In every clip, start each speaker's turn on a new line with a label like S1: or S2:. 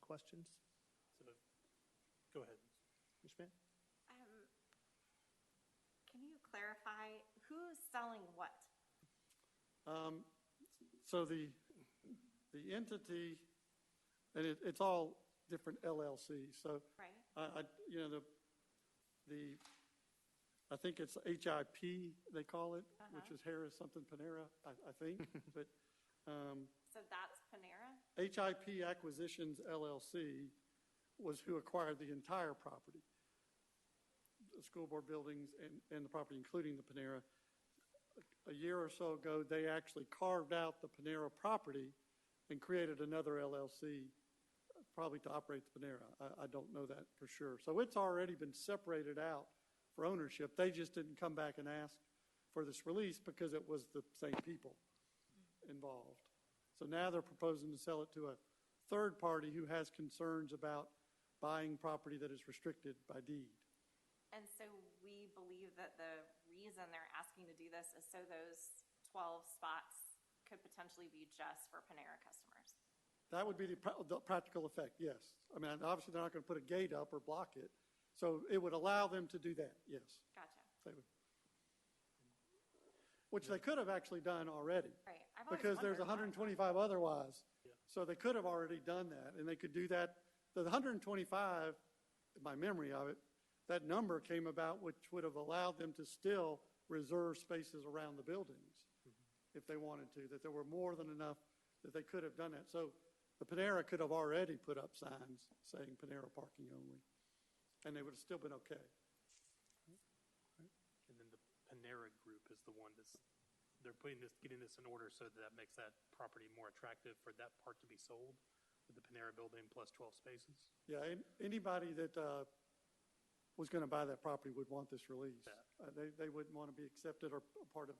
S1: questions?
S2: So, Go ahead.
S1: Ms. Schmidt?
S3: Um, Can you clarify who's selling what?
S1: Um, So the, the entity, and it, it's all different LLCs, so
S3: Right.
S1: I, I, you know, the, the, I think it's HIP, they call it, which
S3: Uh-huh.
S1: is Harris something Panera, I, I think, but, um,
S3: So that's Panera?
S1: HIP Acquisitions LLC was who acquired the entire property. The school board buildings and, and the property, including the Panera. A year or so ago, they actually carved out the Panera property and created another LLC, probably to operate the Panera. I, I don't know that for sure. So it's already been separated out for ownership. They just didn't come back and ask for this release because it was the same people involved. So now they're proposing to sell it to a third party who has concerns about buying property that is restricted by deed.
S3: And so we believe that the reason they're asking to do this is so those 12 spots could potentially be just for Panera customers.
S1: That would be the, pra- the practical effect, yes. I mean, obviously, they're not going to put a gate up or block it. So it would allow them to do that, yes.
S3: Gotcha.
S1: They would. Which they could have actually done already.
S3: Right. I've always
S1: because there's
S3: wondered why.
S1: 125 otherwise.
S2: Yeah.
S1: So they could have already done that, and they could do that. The 125, my memory of it, that number came about which would have allowed them to still reserve spaces around the buildings if they wanted to, that there were more than enough that they could have done that. So the Panera could have already put up signs saying Panera parking only, and they would have still been okay.
S2: And then the Panera Group is the one that's, they're putting this, getting this in order so that that makes that property more attractive for that part to be sold with the Panera building plus 12 spaces.
S1: Yeah, an- anybody that uh, was going to buy that property would want this released. Uh,
S2: Yeah.
S1: They, they wouldn't want to be accepted or a part of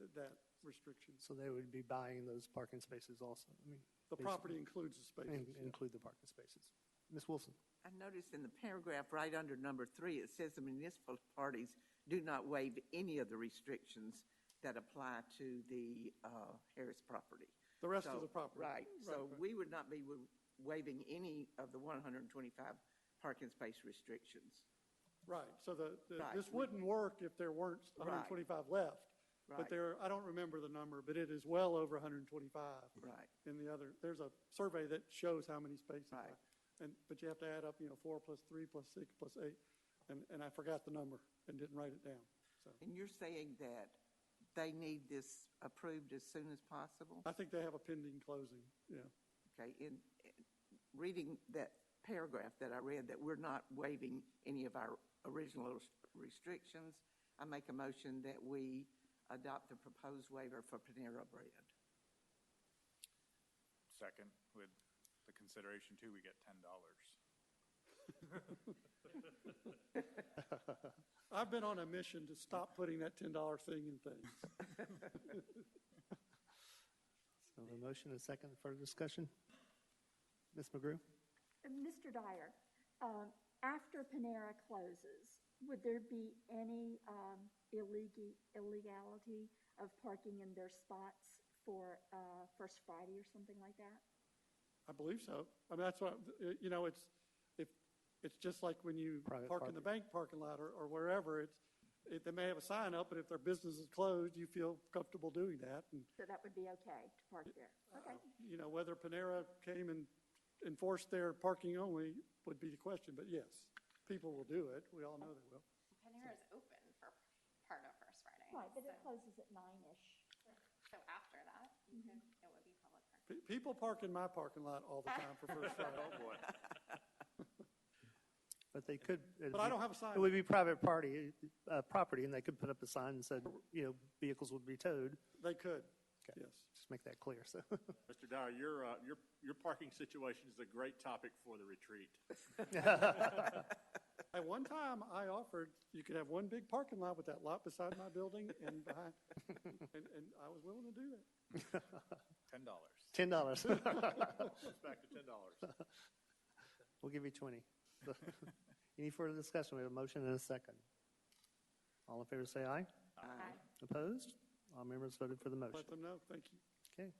S1: th- that restriction.
S4: So they would be buying those parking spaces also. I mean,
S1: The
S4: basically,
S1: property includes the spaces.
S4: in- Include the parking spaces. Ms. Wilson?
S5: I noticed in the paragraph right under number three, it says the municipal parties do not waive any of the restrictions that apply to the uh, Harris property.
S1: The rest of
S5: So-
S1: the property.
S5: Right, so
S1: right.
S5: we would not be wa- waiving any of the 125 parking space restrictions.
S1: Right, so the, the-
S5: Right.
S1: this wouldn't work if there weren't
S5: Right.
S1: 125 left. But
S5: Right.
S1: there, I don't remember the number, but it is well over 125.
S5: Right.
S1: In the other, there's a survey that shows how many spaces.
S5: Right.
S1: are. And, but you have to add up, you know, four plus three plus six plus eight. And, and I forgot the number and didn't write it down, so.
S5: And you're saying that they need this approved as soon as possible?
S1: I think they have a pending closing, yeah.
S5: Okay, in, in reading that paragraph that I read, that we're not waiving any of our original res- restrictions, I make a motion that we adopt the proposed waiver for Panera Bread.
S6: Second, with the consideration too, we get ten dollars.
S1: I've been on a mission to stop putting that ten dollar thing in things.
S4: So a motion and a second for discussion? Ms. McGrew?
S7: Uh, Mr. Dyer, um, after Panera closes, would there be any um, illegi- illegality of parking in their spots for uh, First Friday or something like that?
S1: I believe so. I mean, that's what, uh, you know, it's, if, it's just like when you
S4: Private
S1: park in the
S4: parking.
S1: bank parking lot or, or wherever, it's, it, they may have a sign up, but if their business is closed, you feel comfortable doing that. And,
S7: So that would be okay to park there? Okay.
S1: Uh, you know, whether Panera came and enforced their parking only would be the question, but yes, people will do it. We all know they will.
S3: Panera's open for part of First Friday.
S7: Right, but it
S3: so-
S7: closes at nine-ish.
S3: So after that, you
S7: Mm-hmm.
S3: could, it would be public parking.
S1: Pe- People park in my parking lot all the time for First Friday.
S6: boy.
S4: But they could. it'd
S1: But I
S4: be-
S1: don't have a sign.
S4: It would be private party, uh, property, and they could put up a sign and said, you know, vehicles would be towed.
S1: They could,
S4: Okay.
S1: yes.
S4: Just make that clear, so.
S8: Mr. Dyer, your, uh, your, your parking situation is a great topic for the retreat.
S1: At one time, I offered, you could have one big parking lot with that lot beside my building and behind, and, and I was willing to do that.
S6: Ten dollars.
S4: Ten dollars.
S8: It's back to ten dollars.
S4: We'll give you twenty. Any further discussion? We have a motion and a second. All in favor, say aye.
S3: Aye.
S4: Opposed? All members voted for the motion.
S1: Let them know, thank you.